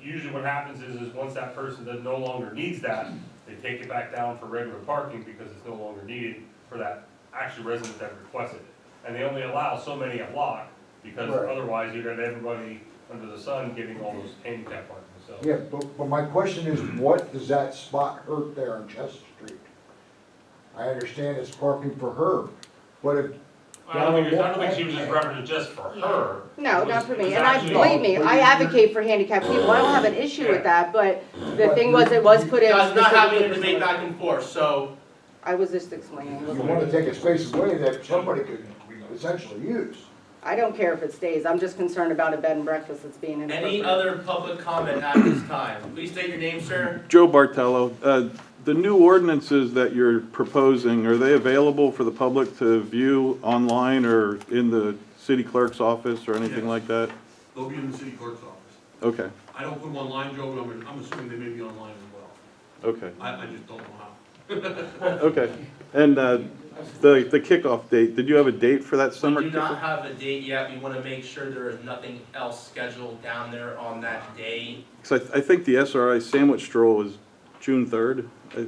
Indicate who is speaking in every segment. Speaker 1: usually what happens is, is once that person that no longer needs that, they take it back down for regular parking because it's no longer needed for that actual resident that requested it. And they only allow so many a block, because
Speaker 2: Right.
Speaker 1: otherwise you'd have everybody under the sun getting all those handicap parking, so.
Speaker 2: Yeah, but, but my question is, what does that spot hurt there on Chester Street? I understand it's parking for her, but if,
Speaker 1: I don't think, I don't think she was just referencing just for her.
Speaker 3: No, not for me, and I,
Speaker 1: It was
Speaker 3: believe me, I advocate for handicapped people, I don't have an issue with that, but the thing was, it was put in.
Speaker 4: Guys, not having a
Speaker 3: specifically-
Speaker 4: debate back and forth, so
Speaker 3: I was just explaining,
Speaker 2: you wanna take a space away that somebody could essentially use.
Speaker 3: I don't care if it stays, I'm just concerned about a bed and breakfast that's being
Speaker 4: any
Speaker 3: inappropriate.
Speaker 4: other public comment at this time? Please state your name, sir.
Speaker 5: Joe Bartello, uh, the new ordinances that you're proposing, are they available for the public to view online or in the city clerk's office or anything
Speaker 6: Yes.
Speaker 5: like that?
Speaker 6: They'll be in the city clerk's office.
Speaker 5: Okay,
Speaker 6: I don't put them online, Joe, but I'm, I'm assuming they may be online as well.
Speaker 5: okay,
Speaker 6: I, I just don't know how.
Speaker 5: okay. And uh, the the kickoff date, did you have a date for that summer?
Speaker 4: We do not
Speaker 5: kickoff?
Speaker 4: have a date yet, we wanna make sure there is nothing else scheduled down there on that day.
Speaker 5: 'Cause I I think the SRI sandwich stroll is June 3rd, uh,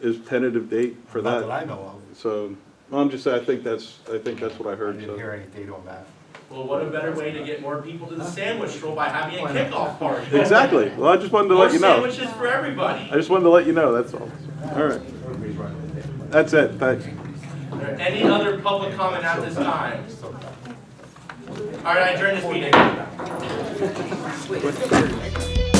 Speaker 5: is tentative date for
Speaker 7: Not that
Speaker 5: that.
Speaker 7: I know of.
Speaker 5: So, well, I'm just, saying, I think that's, I think that's what I
Speaker 7: I
Speaker 5: heard,
Speaker 7: didn't
Speaker 5: so.
Speaker 7: hear any date on that.
Speaker 4: Well, what a better way to get more people to the sandwich stroll by having a kickoff party?
Speaker 5: Exactly, well, I just wanted to
Speaker 4: More
Speaker 5: let you know.
Speaker 4: sandwiches for everybody.
Speaker 5: I just wanted to let you know, that's all. All right. That's it, thanks.
Speaker 4: Are there Any other public comment at this time? All right, I adjourn this meeting.